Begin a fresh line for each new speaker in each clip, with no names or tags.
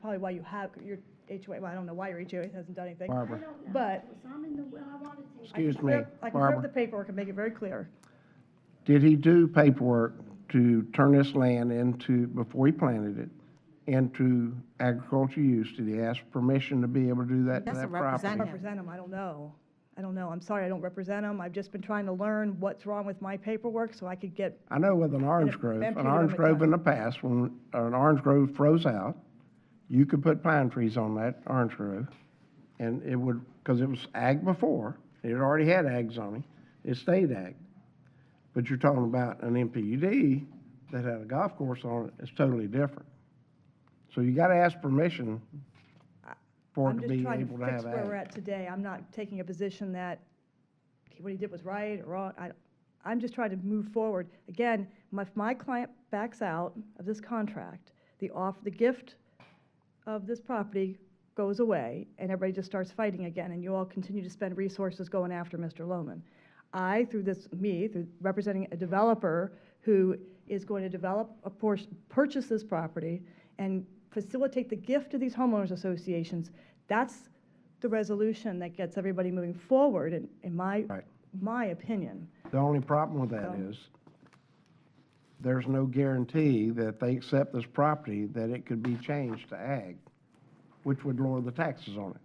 probably why you have, your HOA, well, I don't know why your HOA hasn't done anything.
Barb.
I don't know.
But-
It was on in the will, I wanted to.
I can
Excuse me,
clear- I can clear up
Barbara.
the paperwork and make it very clear.
Did he do paperwork to turn this land into, before he planted it, into agricultural use? Did he ask permission to be able to do that to that
Doesn't represent
property?
him.
Represent them, I don't know. I don't know. I'm sorry, I don't represent them. I've just been trying to learn what's wrong with my paperwork so I could get,
I know with an orange grove,
been
an
treated
orange
over
grove
time.
in the past, when an orange grove froze out, you could put pine trees on that orange grove, and it would, because it was ag before, it already had ag zoning, it stayed ag. But you're talking about an MPUD that had a golf course on it, it's totally different. So you gotta ask permission for it
I'm
to
just
be
trying
able
to
to
fix
have
where we're
ag.
at today. I'm not taking a position that what he did was right or wrong. I, I'm just trying to move forward. Again, my- if my client backs out of this contract, the off, the gift of this property goes away and everybody just starts fighting again and you all continue to spend resources going after Mr. Lohman. I, through this, me, through representing a developer who is going to develop a portion, purchase this property and facilitate the gift of these homeowners associations, that's the resolution that gets everybody moving forward in, in my,
Right.
my opinion.
The only problem with that
So-
is, there's no guarantee that if they accept this property, that it could be changed to ag, which would lower the taxes on it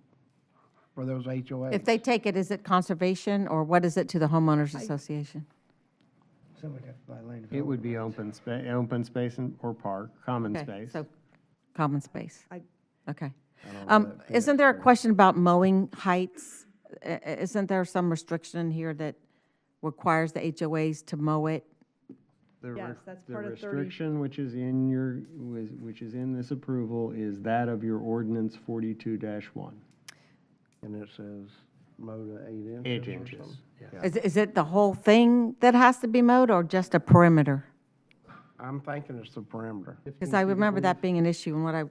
for those HOAs.
If they take it, is it conservation or what is it to the homeowners association?
It would be open spa, open space and, or park, common
Okay,
space.
So common space,
I,
okay.
don't know
Um,
that fits
Isn't there a question about mowing heights? I- i- Isn't there some restriction in here that requires the HOAs to mow it?
The re-
Yes, that's part of
The
30.
restriction which is in your, was- which is in this approval is that of your ordinance forty-two one.
And it says mow to eight inches.
Eight
or
inches,
something.
yeah.
Is, is it the whole thing that has to be mowed or just a perimeter?
I'm thinking it's the perimeter.
Because I remember that being an issue and what I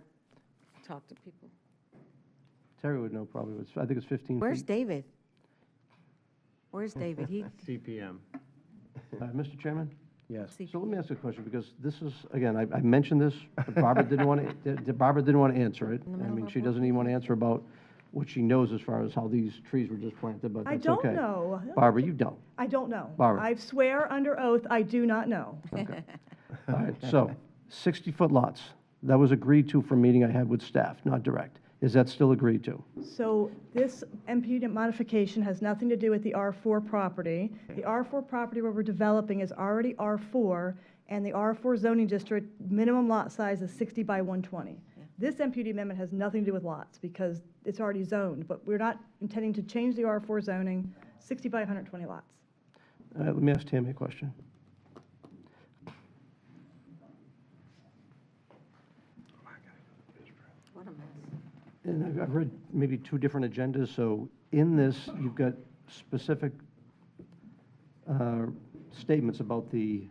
talked to people.
Terry would know probably, it's- I think it's 15 feet.
Where's David? Where's David? He,
CPM.
Uh, Mr. Chairman?
Yes.
So let me ask you a question, because this is, again, I I mentioned this, but Barbara didn't want to, Barbara didn't want to answer it.
the
I
middle
mean,
of
she
our
doesn't even want to answer about what she knows as far as how these trees were just planted, but
I
that's
don't
okay.
know.
Barbara, you don't.
I don't know.
Barbara.
I swear under oath, I do not know.
All right, so 60-foot lots, that was agreed to from a meeting I had with staff, not direct. Is that still agreed to?
So this MPUD modification has nothing to do with the R4 property. The R4 property where we're developing is already R4, and the R4 zoning district, minimum lot size is 60 by 120. This MPUD amendment has nothing to do with lots, because it's already zoned, but we're not intending to change the R4 zoning, 60 by 120 lots.
All right, Uh, let me ask Tammy a question. And I've- I've read maybe two different agendas, so in this, you've got specific uh, statements about the,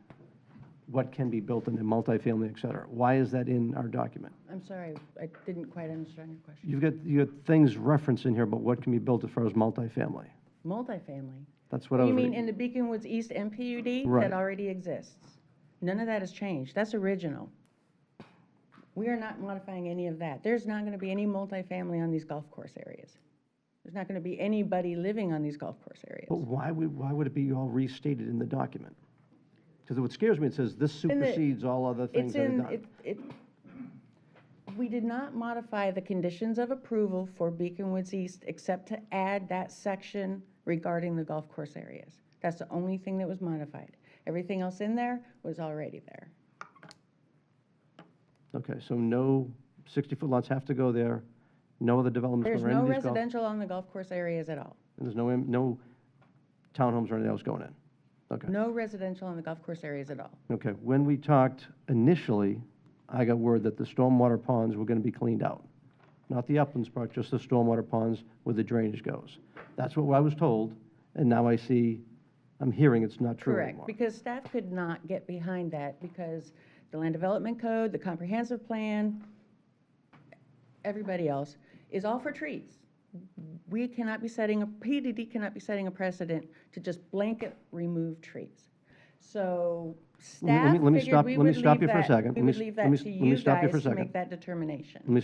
what can be built in a multifamily, et cetera. Why is that in our document?
I'm sorry, I didn't quite understand your question.
You've got, you got things referenced in here about what can be built as far as multifamily.
Multifamily.
That's what I
You
was
mean
reading.
in the Beacon Woods East MPUD?
Right.
That already exists. None of that has changed. That's original. We are not modifying any of that. There's not going to be any multifamily on these golf course areas. There's not going to be anybody living on these golf course
But
areas.
why would, why would it be all restated in the document? Because what scares me, it says this
in the-
supersedes all other things
It's
that are
in,
done.
it, it- we did not modify the conditions of approval for Beacon Woods East except to add that section regarding the golf course areas. That's the only thing that was modified. Everything else in there was already there.
Okay, so no 60-foot lots have to go there, no other developments
There's
or any
no
of these golf. And
residential on the golf course areas at all.
there's no, im- no townhomes or anything else going in? Okay.
No residential on the golf course areas at all.
Okay, when we talked initially, I got word that the stormwater ponds were going to be cleaned out. Not the uplands part, just the stormwater ponds where the drainage goes. That's what I was told, and now I see, I'm hearing it's not true
Correct,
anymore.
because staff could not get behind that because the land development code, the comprehensive plan, everybody else, is all for trees. We cannot be setting, a PDD cannot be setting a precedent to just blanket remove trees. So
Let me- let me-
staff
let me
figured
stop-
we
let me
would
stop
leave
you for a
that-
second.
We
Let me
would
s-
leave
let me
that
s-
to
let me
you
stop you for a
guys to
second.
make that determination.
Let me